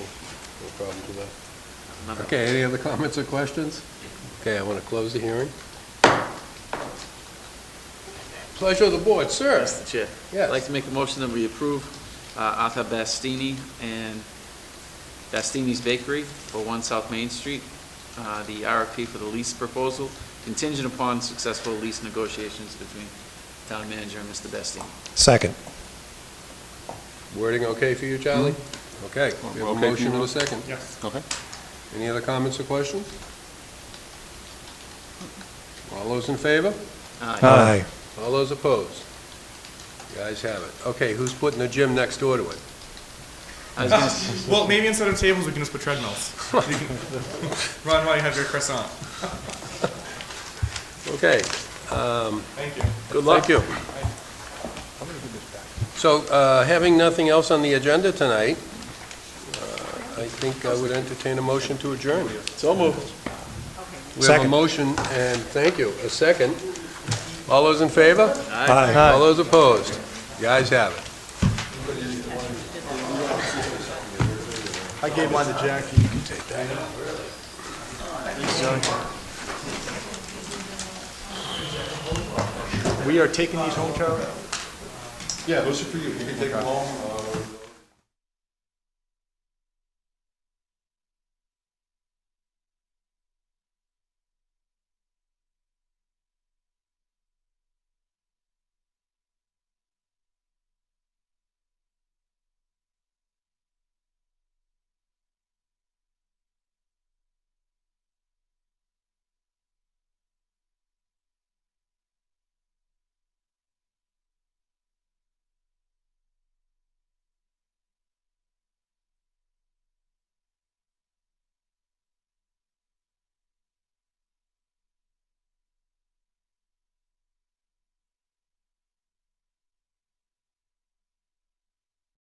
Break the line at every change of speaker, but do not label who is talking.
No problem with that.
Remember-
Okay, any other comments or questions? Okay, I want to close the hearing. Pleasure of the board, sir.
Mr. Chair.
Yes.
I'd like to make a motion that we approve uh, Arthur Bastini and Bastini's Bakery for One South Main Street, uh, the RFP for the lease proposal, contingent upon successful lease negotiations between town manager and Mr. Bastini.
Second.
Wording okay for you, Charlie? Okay, we have a
Okay for you,
motion and a
Mark?
second.
Okay.
Any other comments or questions? All those in favor?
Uh,
Uh,
Aye.
All those opposed? You guys have it. Okay, who's putting the gym next door to it?
I was gonna-
Well, maybe instead of tables, we can just put treadmills. You can- Ron, while you have your croissant.
Okay,
Thank you.
good luck. Thank you. So, uh, having nothing else on the agenda tonight, uh, I think I would entertain a motion to adjourn. So moved. We have a
Second.
motion, and thank you, a second. All those in favor?
Aye.
All those opposed? You guys have it.
I gave mine to Jackie. You can take that. We are taking these home, Charlie?
Yeah, those are for you. You can take them home. uh,